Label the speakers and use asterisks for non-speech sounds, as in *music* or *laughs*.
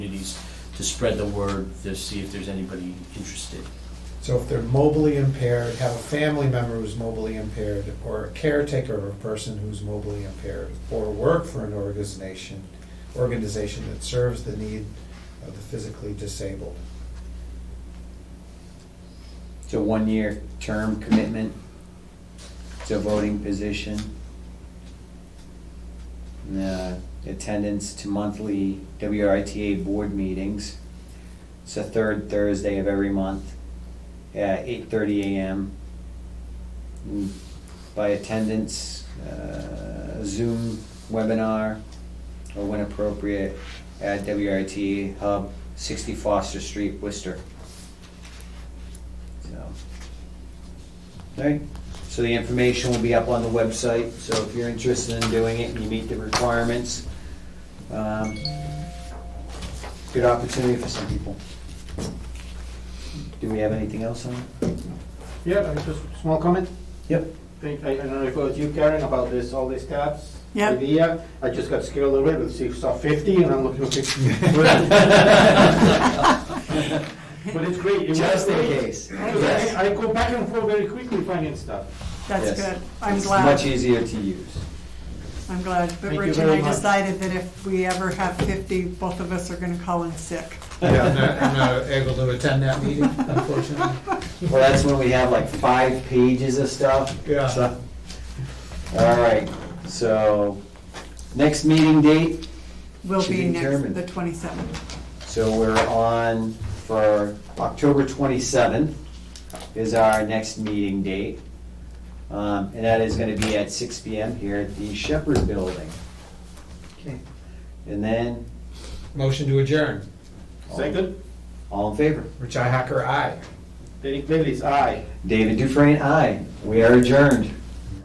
Speaker 1: to spread the word, to see if there's anybody interested.
Speaker 2: So if they're mobily impaired, have a family member who's mobily impaired, or a caretaker of a person who's mobily impaired, or work for an organization, organization that serves the need of the physically disabled.
Speaker 3: It's a one-year term commitment. It's a voting position. And, uh, Attendance to monthly WRITA board meetings. It's the third Thursday of every month at eight thirty AM. Mm, By attendance, uh, Zoom webinar, or when appropriate, at WRITA Hub, sixty Foster Street, Worcester. So. Alright, so the information will be up on the website, so if you're interested in doing it and you meet the requirements, um, good opportunity for some people. Do we have anything else on? it?
Speaker 4: Yeah, I just small comment.
Speaker 3: Yep.
Speaker 4: Think- I I don't know if it was you, Karen, about this, all these tabs.
Speaker 5: Yeah.
Speaker 4: Idea, I just got scared a little bit, with six saw fifty, and I'm looking at
Speaker 3: *laughs*
Speaker 4: fifty. But it's great. it was
Speaker 3: Just in
Speaker 4: great.
Speaker 3: case.
Speaker 5: Yes.
Speaker 4: I I go back and forth very quickly finding stuff.
Speaker 3: Yes.
Speaker 5: That's good. I'm
Speaker 3: It's Much
Speaker 5: glad,
Speaker 3: easier to use.
Speaker 5: I'm glad. But
Speaker 4: Thank you
Speaker 5: Rich and
Speaker 4: very
Speaker 5: I
Speaker 4: much.
Speaker 5: decided that if we ever have 50, both of us are going to call in sick.
Speaker 2: Yeah, I'm not, I'm not able to attend that meeting, unfortunately.
Speaker 3: Well, that's when we have like five pages of stuff.
Speaker 2: Yeah.
Speaker 3: So- All right, so, next meeting date,
Speaker 5: Will
Speaker 3: Should
Speaker 5: be
Speaker 3: be
Speaker 5: next,
Speaker 3: determined.
Speaker 5: the 27th.
Speaker 3: So we're on for October 27th is our next meeting date. Um, And that is going to be at 6 PM here at the Shepherd Building.
Speaker 2: Okay.
Speaker 3: And then,
Speaker 2: Motion to adjourn.
Speaker 4: Second,
Speaker 3: all in favor?
Speaker 2: Richi Hacker, aye.
Speaker 4: Derek Bailey's aye.
Speaker 3: David Dufresne, aye. We are adjourned.